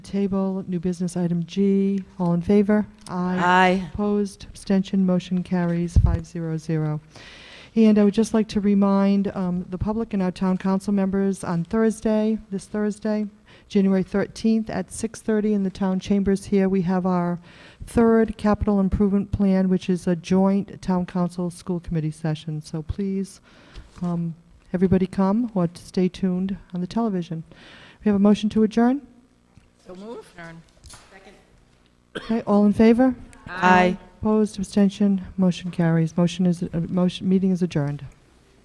Table, new business item G. All in favor? Aye. Opposed, abstention, motion carries 500. And I would just like to remind um, the public and our town council members on Thursday, this Thursday, January 13th at 6:30 in the town chambers here, we have our third capital improvement plan, which is a joint town council school committee session. So please, um, everybody come or stay tuned on the television. We have a motion to adjourn? So move. Okay, all in favor? Aye. Opposed, abstention, motion carries. Motion is, uh, motion, meeting is adjourned.